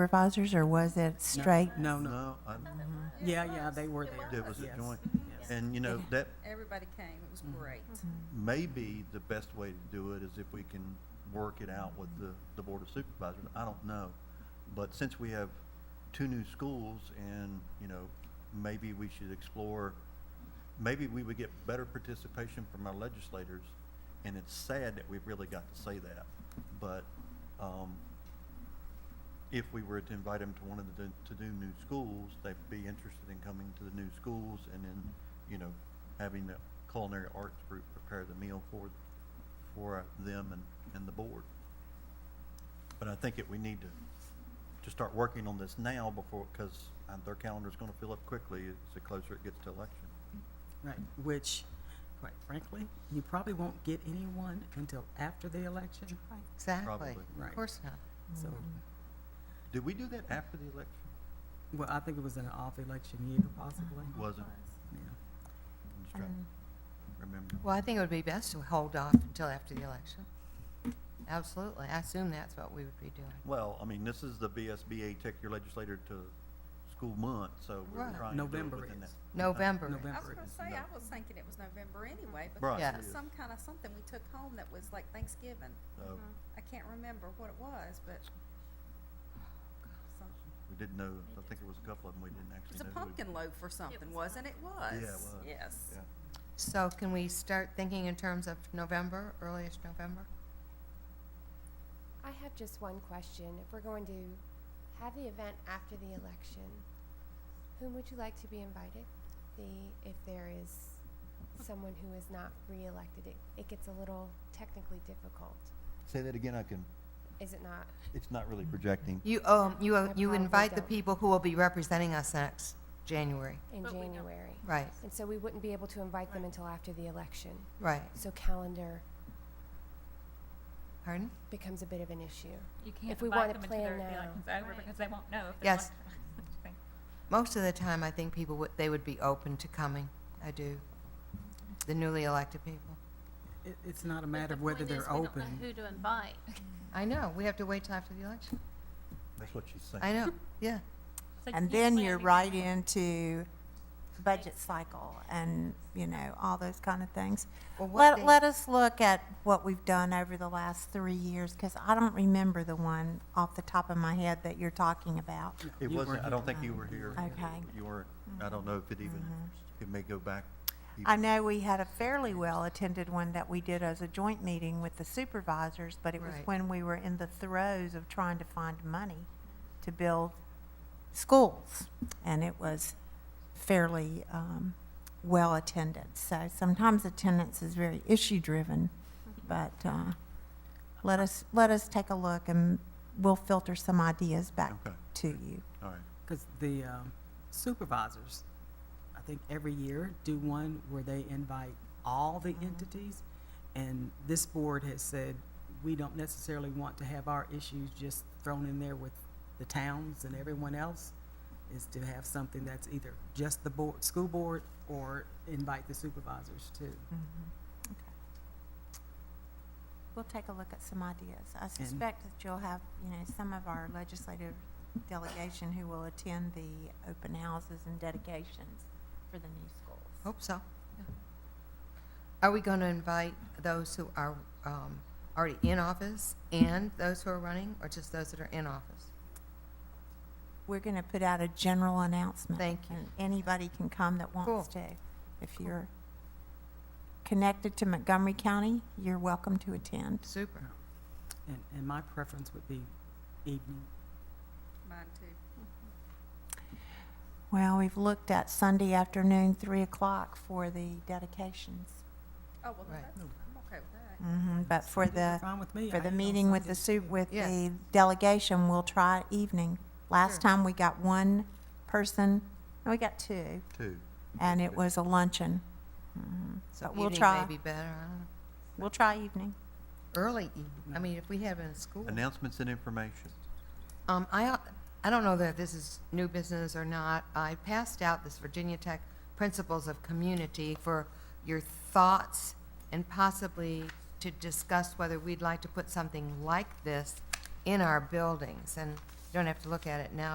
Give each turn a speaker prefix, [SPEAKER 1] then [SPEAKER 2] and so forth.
[SPEAKER 1] supervisors, or was it straight?
[SPEAKER 2] Um,
[SPEAKER 3] No, no.
[SPEAKER 4] No, I,
[SPEAKER 3] Yeah, yeah, they were there.
[SPEAKER 4] there was a
[SPEAKER 3] Yes,
[SPEAKER 4] joint,
[SPEAKER 3] yes.
[SPEAKER 4] and you know, that
[SPEAKER 5] Everybody came, it was great.
[SPEAKER 4] may be the best way to do it, is if we can work it out with the, the Board of Supervisors, I don't know. But since we have two new schools and, you know, maybe we should explore, maybe we would get better participation from our legislators, and it's sad that we've really got to say that, but, um, if we were to invite them to one of the, to do new schools, they'd be interested in coming to the new schools and then, you know, having the culinary arts group prepare the meal for, for them and, and the board. But I think that we need to, to start working on this now before, because their calendar's gonna fill up quickly as the closer it gets to election.
[SPEAKER 3] Right, which, quite frankly, you probably won't get anyone until after the election,
[SPEAKER 6] Exactly.
[SPEAKER 4] Probably.
[SPEAKER 3] Right.
[SPEAKER 6] Of course not.
[SPEAKER 3] so,
[SPEAKER 4] Did we do that after the election?
[SPEAKER 3] well, I think it was in an off-election year possibly.
[SPEAKER 4] Wasn't,
[SPEAKER 3] Yeah.
[SPEAKER 4] I'm just trying to remember.
[SPEAKER 6] Well, I think it would be best to hold off until after the election. Absolutely. I assume that's what we would be doing.
[SPEAKER 4] Well, I mean, this is the BSBA, take your legislator to school month, so we're
[SPEAKER 6] Right.
[SPEAKER 4] trying to do it
[SPEAKER 3] November
[SPEAKER 4] within that.
[SPEAKER 3] is.
[SPEAKER 6] November.
[SPEAKER 3] November.
[SPEAKER 5] I was gonna
[SPEAKER 3] Right.
[SPEAKER 5] say, I was thinking it was November
[SPEAKER 4] Right.
[SPEAKER 5] anyway, because
[SPEAKER 6] Yeah.
[SPEAKER 5] there was some kind of something we took home that was like Thanksgiving.
[SPEAKER 4] So
[SPEAKER 5] I can't remember what it was, but some-
[SPEAKER 4] we didn't know, I think it was a couple of them we didn't actually
[SPEAKER 5] it's
[SPEAKER 4] know.
[SPEAKER 5] a
[SPEAKER 4] who-
[SPEAKER 5] pumpkin loaf or something, wasn't it?
[SPEAKER 4] it
[SPEAKER 5] Was,
[SPEAKER 4] was.
[SPEAKER 5] yes.
[SPEAKER 4] Yeah.
[SPEAKER 6] So can we start thinking in terms of November, earliest November?
[SPEAKER 7] I have just one question. If we're going to have the event after the election, whom would you like to be invited? The if there is someone who is not reelected, it, it gets a little technically difficult,
[SPEAKER 4] Say that again, I can,
[SPEAKER 7] is it not?
[SPEAKER 4] it's not really projecting.
[SPEAKER 6] You, um, you,
[SPEAKER 7] I
[SPEAKER 6] you
[SPEAKER 7] probably
[SPEAKER 6] invite the
[SPEAKER 7] don't.
[SPEAKER 6] people who will be representing us next January.
[SPEAKER 7] In January,
[SPEAKER 6] Right,
[SPEAKER 7] and so we wouldn't be able to invite them until after the election.
[SPEAKER 6] right.
[SPEAKER 7] So calendar
[SPEAKER 6] Pardon?
[SPEAKER 7] becomes a bit of an issue.
[SPEAKER 8] You can't
[SPEAKER 7] we
[SPEAKER 8] invite
[SPEAKER 7] wanna
[SPEAKER 8] them
[SPEAKER 7] plan
[SPEAKER 8] until their
[SPEAKER 7] now.
[SPEAKER 8] election's over
[SPEAKER 5] Right.
[SPEAKER 8] because they won't know if
[SPEAKER 6] Yes.
[SPEAKER 8] there's election.
[SPEAKER 6] Most of the time, I think people would, they would be open to coming. I do. The newly elected people.
[SPEAKER 3] It, it's not a matter of whether they're open.
[SPEAKER 8] Who to invite.
[SPEAKER 6] I know, we have to wait till after the election.
[SPEAKER 4] That's what she's saying.
[SPEAKER 6] I know, yeah.
[SPEAKER 2] And then you're right into budget cycle and, you know, all those kind of things.
[SPEAKER 6] Well, what
[SPEAKER 2] Let,
[SPEAKER 6] day-
[SPEAKER 2] let us look at what we've done over the last three years, because I don't remember the one off the top of my head that you're talking about.
[SPEAKER 4] It
[SPEAKER 3] You
[SPEAKER 4] wasn't,
[SPEAKER 3] weren't
[SPEAKER 4] I
[SPEAKER 3] here.
[SPEAKER 4] don't think you were here.
[SPEAKER 2] Okay.
[SPEAKER 4] You weren't, I
[SPEAKER 6] Mm-hmm.
[SPEAKER 4] don't know if it even, it may go back.
[SPEAKER 2] I know we had a fairly well-attended one that we did as a joint meeting with the supervisors, but it was
[SPEAKER 6] Right.
[SPEAKER 2] when we were in the throes of trying to find money to build schools, and it was fairly um, well-attended. So sometimes attendance is very issue-driven, but uh, let us, let us take a look, and we'll filter some ideas back
[SPEAKER 4] Okay.
[SPEAKER 2] to you.
[SPEAKER 4] All right.
[SPEAKER 3] Because the um, supervisors, I think every year, do one where they invite all the entities. And this board has said, we don't necessarily want to have our issues just thrown in there with the towns and everyone else, is to have something that's either just the board, school board, or invite the supervisors too.
[SPEAKER 7] Mm-hmm.
[SPEAKER 2] We'll take a look at some ideas. I suspect that you'll have, you know, some of our legislative delegation who will attend the open houses and dedications for the new schools.
[SPEAKER 6] Hope so. yeah. Are we going to invite those who are um, already in office and those who are running, or just those that are in office?
[SPEAKER 2] We're going to put out a general announcement.
[SPEAKER 6] Thank you.
[SPEAKER 2] And anybody can come that wants to. If
[SPEAKER 6] Cool.
[SPEAKER 2] you're connected to Montgomery County, you're welcome to attend.
[SPEAKER 6] Super.
[SPEAKER 3] And, and my preference would be evening.
[SPEAKER 5] Mine too.
[SPEAKER 2] Well, we've looked at Sunday afternoon, 3 o'clock for the dedications.
[SPEAKER 5] Oh, well,
[SPEAKER 6] Right.
[SPEAKER 5] that's, I'm okay with that.
[SPEAKER 2] Mhm, But for the.
[SPEAKER 3] Fine with me.
[SPEAKER 2] For
[SPEAKER 3] I
[SPEAKER 2] the
[SPEAKER 3] eat on
[SPEAKER 2] meeting with the
[SPEAKER 3] Sundays,
[SPEAKER 2] su,
[SPEAKER 3] too.
[SPEAKER 2] with
[SPEAKER 6] Yeah.
[SPEAKER 2] the delegation, we'll try evening. Last
[SPEAKER 6] Sure.
[SPEAKER 2] time, we got one person, no, we got two,
[SPEAKER 4] Two.
[SPEAKER 2] and it was a luncheon. But
[SPEAKER 6] So
[SPEAKER 2] Uh, we'll
[SPEAKER 6] evening
[SPEAKER 2] try.
[SPEAKER 6] may be better, I don't know.
[SPEAKER 2] We'll try evening.
[SPEAKER 6] Early evening, I mean, if we have it in school.
[SPEAKER 4] Announcements and information.
[SPEAKER 6] Um, I, I don't know that this is new business or not. I passed out this Virginia Tech Principles of Community for your thoughts and possibly to discuss whether we'd like to put something like this in our buildings. And don't have to look at it now,